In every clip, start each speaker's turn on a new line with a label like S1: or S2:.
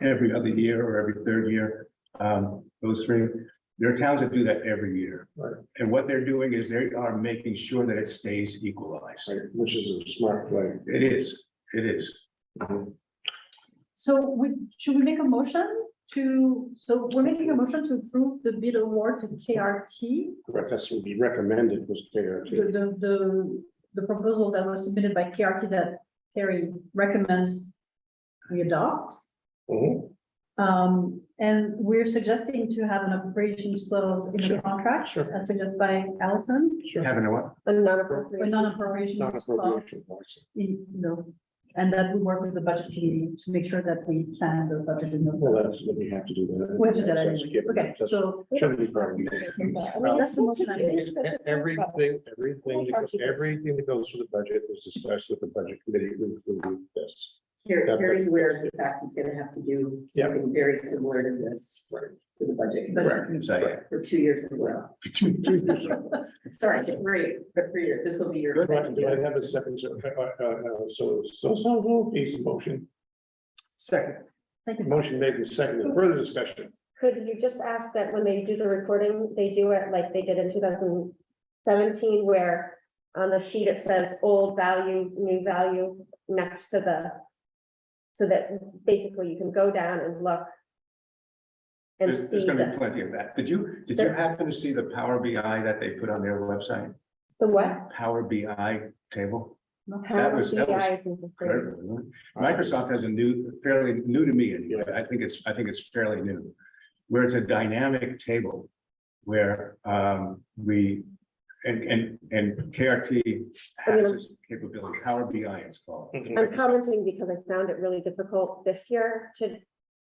S1: every other year or every third year. Um, those three, there are towns that do that every year.
S2: Right.
S1: And what they're doing is they are making sure that it stays equalized.
S2: right, which is a smart play.
S1: It is, it is.
S3: So would, should we make a motion to, so we're making a motion to approve the bid award to KRT?
S2: Correct, that's what we recommended was
S3: The,
S2: KRT.
S3: the, the, the proposal that was submitted by KRT that Terry recommends we adopt.
S2: Mhm.
S3: Um, and we're suggesting to have an appropriations clause in the contract,
S2: Sure.
S3: as suggested by Allison,
S1: Having a what?
S4: A
S3: a
S4: non-appropriate.
S3: non-appropriation
S2: Not
S3: clause.
S2: appropriation policy.
S3: in- No, and that we work with the budget committee to make sure that we plan the budget in the.
S2: Well, that's what we have to do. that.
S3: We'll do that
S2: That's
S3: anyway.
S2: given.
S3: Okay,
S2: That's-
S3: so.
S2: Shouldn't be part of it.
S3: That's the motion I made.
S2: Everything, everything, that goes- everything that goes through the budget is discussed with the budget committee, including this.
S5: Here,
S2: That-
S5: here's where the fact he's gonna have to do
S2: Yeah.
S5: something very similar to this, to the budget.
S3: But-
S1: Exactly.
S5: For two years in a row. Sorry, three, for three years, this will be your.
S2: Do I-
S5: second
S2: do I
S5: year.
S2: have a second, uh, uh, uh, so, so, so, piece of motion,
S1: Second.
S3: Thank you.
S2: motion made and seconded, further discussion.
S4: Could you just ask that when they do the recording, they do it like they did in two thousand seventeen where on the sheet it says old value, new value next to the so that basically you can go down and look and
S1: There's,
S4: see
S1: there's gonna be
S4: the,
S1: plenty of that. Did you, did you happen to see the Power BI that they put on their website?
S4: the what?
S1: Power BI table? That
S4: Power
S1: was- that was
S4: BI is in the frame.
S1: Microsoft has a new, fairly new to me, anyway. I think it's, I think it's fairly new, where it's a dynamic table. Where um we, and and and KRT has this capability, Power BI it's called.
S2: Hmm.
S4: I'm commenting because I found it really difficult this year to,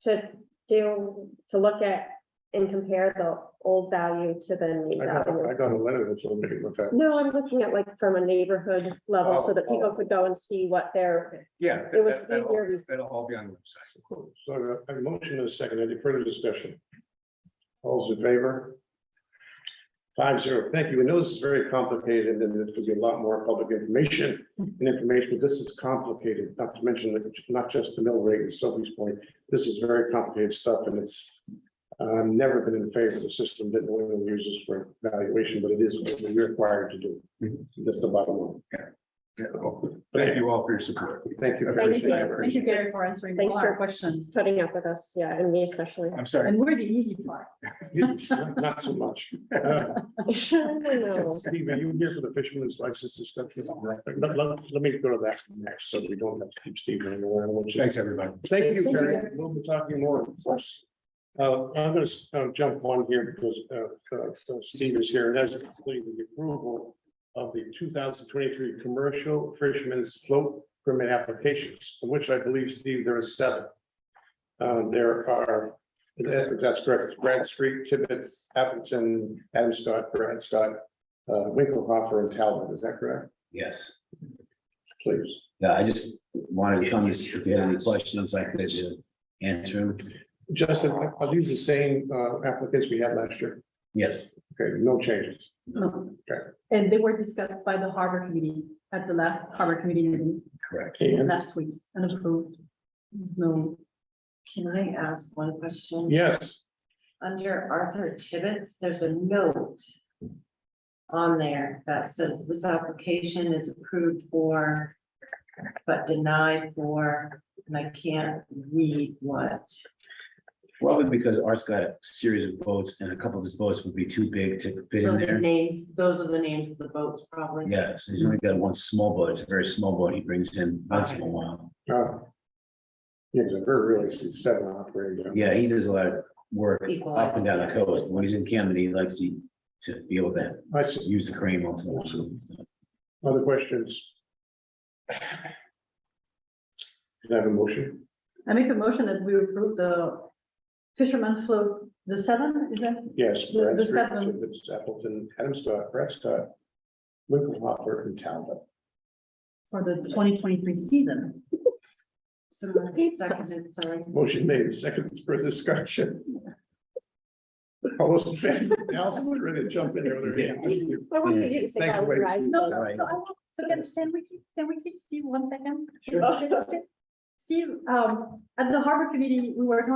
S4: to do, to look at and compare the old value to the new
S2: I got, I
S4: value.
S2: got a letter that's on the, with that.
S4: No, I'm looking at like from a neighborhood level so that
S2: Oh,
S4: people could go and see what their,
S1: Yeah.
S4: it was
S1: that- that'll-
S4: easier.
S1: That'll all be on the website.
S2: So uh, a motion is second, any further discussion? All's in favor? Five zero, thank you. We know this is very complicated and then there's gonna be a lot more public information and information, but this is complicated, not to mention that not just the mill rate and Sophie's point. This is very complicated stuff and it's, I've never been in favor of the system that New England uses for valuation, but it is what we're required to do. That's the bottom line.
S1: Yeah, well, Thank you all for your support.
S2: Thank you.
S3: Thank
S4: Thank
S3: you,
S2: appreciate it.
S3: thank you, Gary, for answering
S4: Thanks
S3: all
S4: for-
S3: our questions.
S4: putting up with us, yeah, and me especially.
S1: I'm sorry.
S3: And we're the easy part.
S2: Not so much. Uh,
S4: I know.
S2: Steve, are you here for the fisherman's license discussion? Let, let, let me go to that next, so we don't have to keep Steve hanging around. which is-
S1: Thanks, everybody.
S2: Thank you,
S4: Thank you.
S2: Gary. We'll be talking more, of course. Uh, I'm gonna, uh, jump on here because, uh, uh, so Steve is here, and that's completing the approval of the two thousand twenty-three commercial fisherman's float permit applications, of which I believe, Steve, there are seven. Uh, there are, that- that's correct, Brad Street, Tibbetts, Appleton, Adam Scott, Brad Scott, uh, Winklehoffer and Talbot, is that correct?
S6: Yes,
S2: Please.
S6: yeah, I just wanted to come, if you had any questions, I could uh, answer them.
S2: Justin, are- are these the same, uh, applicants we had last year?
S6: Yes,
S2: Okay, no changes.
S3: No.
S2: Okay.
S3: And they were discussed by the harbor committee at the last harbor committee meeting
S6: correct.
S2: And-
S3: last week and approved. There's no,
S7: Can I ask one question?
S2: Yes,
S7: Under Arthur Tibbetts, there's a note on there that says this application is approved for, but denied for, and I can't read what.
S6: Probably because Art's got a series of boats and a couple of his boats would be too big to fit
S7: So
S6: in
S7: the
S6: there.
S7: names, those are the names of the boats probably.
S6: Yeah, so he's only got one small boat. It's a very small boat he brings in once in a while.
S2: Oh. Yeah, it's a very really seven operating. down.
S6: Yeah, he does a lot of work up and
S7: Equalized.
S6: down the coast. When he's in Camden, he likes to, to be able to
S2: I see.
S6: use the crane once in a while.
S2: Other questions? Can I have a motion?
S3: I make a motion that we approve the fisherman float, the seven, is that?
S2: Yes.
S3: The-
S2: Brad
S3: the
S2: Street,
S3: seven.
S2: Tibbetts, Appleton, Adam Scott, Brad Scott, Winklehopper and Talbot.
S3: For the twenty twenty-three season.
S7: So moved, seconded, sorry.
S2: Motion made, and seconded for discussion. All those in favor, Allison would ready to jump in earlier.
S4: I wanted you to say
S2: Thanks
S4: that,
S2: for waiting.
S4: right?
S3: No,
S6: Right.
S3: so I, want- so can, can we keep, can we keep Steve one second?
S2: Sure.
S3: Okay, okay. Steve, um, at the harbor committee, we were talking